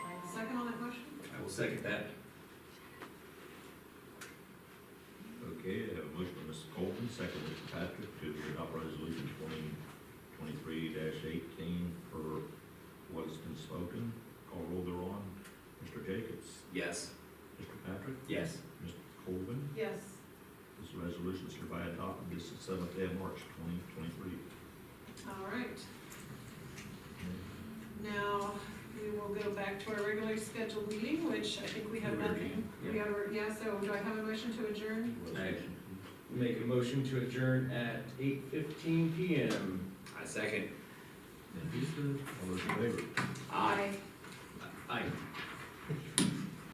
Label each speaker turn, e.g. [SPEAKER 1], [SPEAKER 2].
[SPEAKER 1] second that.
[SPEAKER 2] Okay, I have a motion by Mrs. Colvin, second by Mr. Patrick, to adopt resolution twenty twenty-three eighteen for what has been spoken. Call roll thereon. Mr. Jacobs,
[SPEAKER 1] Yes.
[SPEAKER 2] Mr. Patrick,
[SPEAKER 1] Yes.
[SPEAKER 2] Mr. Colvin.
[SPEAKER 3] yes,
[SPEAKER 2] This resolution is hereby adopted this seventh day of March twenty twenty-three.
[SPEAKER 3] all right. Now, we will go back to our regularly scheduled meeting, which I think we have nothing. We
[SPEAKER 1] Yeah.
[SPEAKER 3] have, yeah, so do I have a motion to adjourn?
[SPEAKER 4] Make a motion to adjourn at eight fifteen PM.
[SPEAKER 1] I second.
[SPEAKER 2] And Houston, all those in favor?
[SPEAKER 1] Aye. Aye.